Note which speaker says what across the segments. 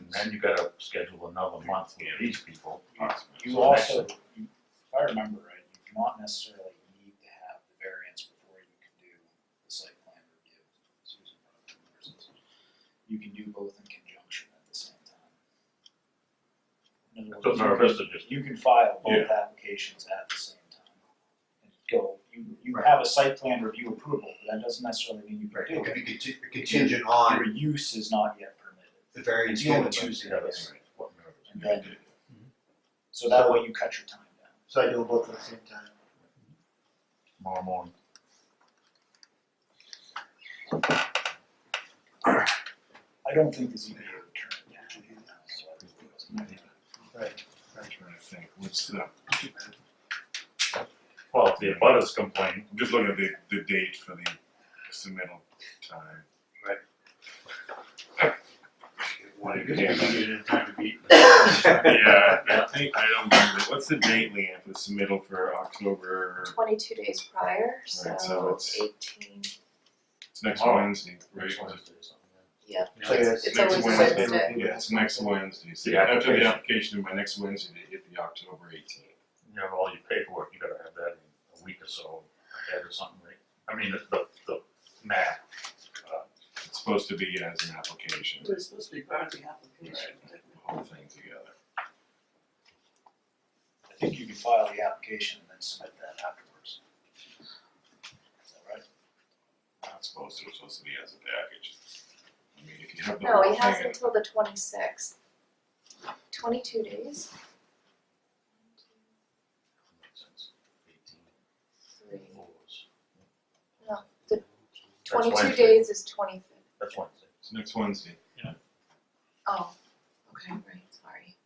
Speaker 1: and then you gotta schedule another month with these people.
Speaker 2: You
Speaker 1: So next-
Speaker 2: also, you- if I remember right, you do not necessarily need to have the variance before you can do the site plan review. Susan brought up the reasons. You can do both in conjunction at the same time. In other
Speaker 1: So
Speaker 2: words, you
Speaker 1: nervous to
Speaker 2: can-
Speaker 1: just,
Speaker 2: You can file both
Speaker 1: Yeah.
Speaker 2: applications at the same time. And go, you, you
Speaker 3: Right.
Speaker 2: have a site plan review approval, but that doesn't necessarily mean you
Speaker 3: Right,
Speaker 2: can
Speaker 3: it
Speaker 2: do
Speaker 3: could
Speaker 2: it.
Speaker 3: be conti- contingent on
Speaker 2: Your use is not yet permitted.
Speaker 3: the variance.
Speaker 2: You only
Speaker 3: given by-
Speaker 2: choose
Speaker 1: yeah, that's right, what nervous.
Speaker 2: And then, so that way you cut your time down.
Speaker 3: So I do them both at the same time.
Speaker 1: Tomorrow morning.
Speaker 2: I don't think the ZBA would turn it down. so I think it was negative.
Speaker 3: Right.
Speaker 4: trying to think, what's the,
Speaker 1: Well, if the abutters complain,
Speaker 4: I'm just looking at the, the date for the submittal time.
Speaker 5: Wanted to get it in time to beat.
Speaker 4: Yeah, I think, I don't remember, what's the date, Leanne, for the submittal for October,
Speaker 6: twenty-two days prior, so
Speaker 4: Right, so it's-
Speaker 6: eighteen,
Speaker 4: it's next
Speaker 1: Tomorrow.
Speaker 4: Wednesday, right?
Speaker 1: next Wednesday or something, yeah.
Speaker 6: yeah.
Speaker 3: So yeah, it's
Speaker 6: It's
Speaker 4: next
Speaker 6: always
Speaker 4: Wednesday.
Speaker 6: Wednesday.
Speaker 4: Yeah, it's next Wednesday, so
Speaker 1: The
Speaker 4: after
Speaker 1: application.
Speaker 4: the application, by next Wednesday, they hit the October eighteenth.
Speaker 1: you have all your paperwork, you gotta have that in a week or so ahead or something, right? I mean, the, the, the map, uh,
Speaker 4: It's supposed to be as an application,
Speaker 5: It's supposed to be part of the
Speaker 4: right,
Speaker 5: application.
Speaker 4: the whole thing together.
Speaker 2: I think you can file the application and then submit that afterwards. Is that right?
Speaker 4: Not supposed to, it's supposed to be as a package. I mean, if you have the
Speaker 6: No,
Speaker 4: whole
Speaker 6: he has
Speaker 4: thing,
Speaker 6: until the twenty-sixth. Twenty-two days,
Speaker 1: makes sense. Eighteen
Speaker 6: three,
Speaker 1: floors. That's
Speaker 6: twenty-two
Speaker 1: Wednesday.
Speaker 6: days is twenty-fifth.
Speaker 1: That's Wednesday.
Speaker 4: it's next Wednesday.
Speaker 6: Oh, okay, right, sorry.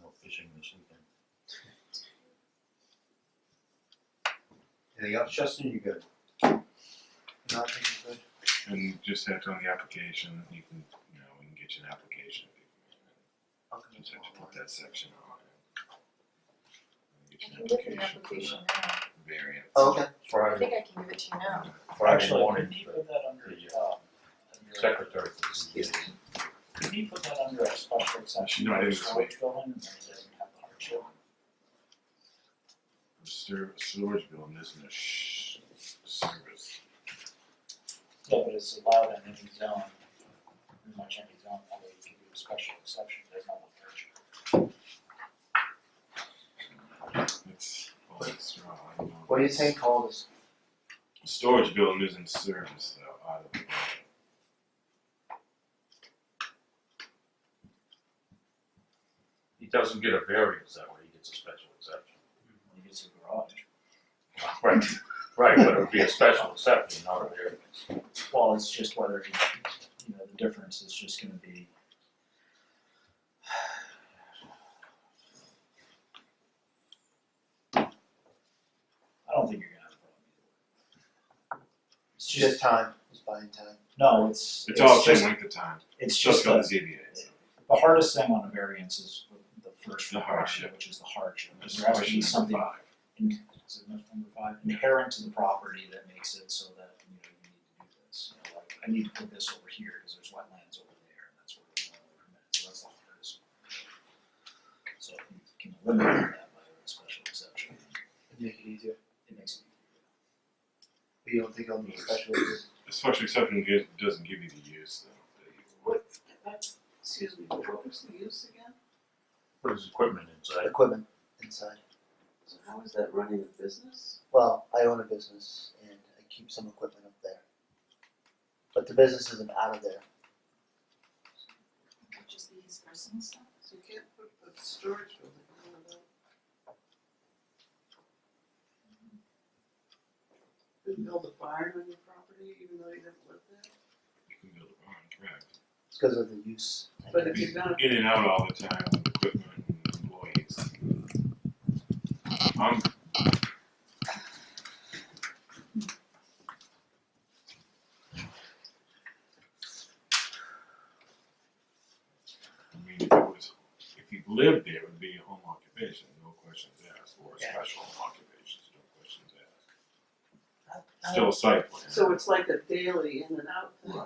Speaker 1: No fishing this weekend.
Speaker 3: Anything else, Justin, you good? No, I think you're good.
Speaker 4: And just have to on the application, you can, you know, we can get you an application.
Speaker 3: I'll come in
Speaker 4: Just have to
Speaker 3: tomorrow.
Speaker 4: put that section on. it.
Speaker 6: I
Speaker 4: Get you
Speaker 6: can
Speaker 4: an
Speaker 6: give you an
Speaker 4: for
Speaker 6: application now,
Speaker 4: the Variance.
Speaker 3: Oh, Okay.
Speaker 6: I
Speaker 1: Friday,
Speaker 6: think I can give it to you now.
Speaker 1: Friday
Speaker 2: Actually,
Speaker 1: morning,
Speaker 2: could he put that under,
Speaker 1: Yeah.
Speaker 2: um, under,
Speaker 1: secretary for the ZBA.
Speaker 2: could he put that under a special exception
Speaker 4: No, I
Speaker 2: for
Speaker 4: didn't.
Speaker 2: storage building and then he doesn't have the hardship?
Speaker 4: Ser- Storage building isn't a sh- service.
Speaker 2: Yeah, but it's allowed in any zone, pretty much any zone, although you can do a special exception, there's not a hardship.
Speaker 4: It's, well, it's wrong. I don't know.
Speaker 3: What do you think, Paul? This-
Speaker 4: Storage building isn't service though, out of the.
Speaker 1: He doesn't get a variance that way, he gets a special exception.
Speaker 2: He gets a garage.
Speaker 1: Right, right, but it would be a special exception, not a variance.
Speaker 2: Well, it's just whether, you know, the difference is just gonna be. I don't think you're gonna have a problem either. It's
Speaker 3: Just
Speaker 2: just,
Speaker 3: time, just buying time.
Speaker 2: no, it's,
Speaker 4: It's all the
Speaker 2: it's
Speaker 4: same
Speaker 2: just,
Speaker 4: length of time,
Speaker 2: it's
Speaker 4: it's
Speaker 2: just
Speaker 4: just on
Speaker 2: the,
Speaker 4: the ZBA, so.
Speaker 2: the hardest thing on a variance is the first
Speaker 4: The
Speaker 2: requirement,
Speaker 4: hardship.
Speaker 2: which is the hardship.
Speaker 4: That's
Speaker 2: There has to be
Speaker 4: question
Speaker 2: something
Speaker 4: five.
Speaker 2: in- is it number five, inherent to the property that makes it so that, you know, you need to do this, you know, like, I need to put this over here, cause there's wetlands over there, and that's where we want to permit, so that's the hardest. one. So if you can eliminate that by a special exception,
Speaker 3: Make it easier.
Speaker 2: it makes it
Speaker 3: But you don't think I'll need special use?
Speaker 4: The special exception gi- doesn't give you the use though. that you-
Speaker 5: What, that's, excuse me, what was the use again?
Speaker 1: Put his equipment inside,
Speaker 3: Equipment inside.
Speaker 5: So how is that running a business?
Speaker 3: Well, I own a business and I keep some equipment up there. But the business isn't out of there.
Speaker 6: Which is these persons.
Speaker 5: So you can't put a storage building on a. Couldn't build a barn on your property even though you don't live there?
Speaker 4: You can build a barn, correct.
Speaker 3: It's because of the use. I
Speaker 5: But if
Speaker 3: guess.
Speaker 5: you're not,
Speaker 4: In and out all the time, with equipment and employees. I'm, I mean, if it was, if you lived there, it would be a home occupation, no questions asked, or a
Speaker 3: Yeah.
Speaker 4: special home occupation, no questions asked.
Speaker 5: I-
Speaker 4: Still a site plan.
Speaker 5: so it's like a daily in and out thing.
Speaker 4: Right.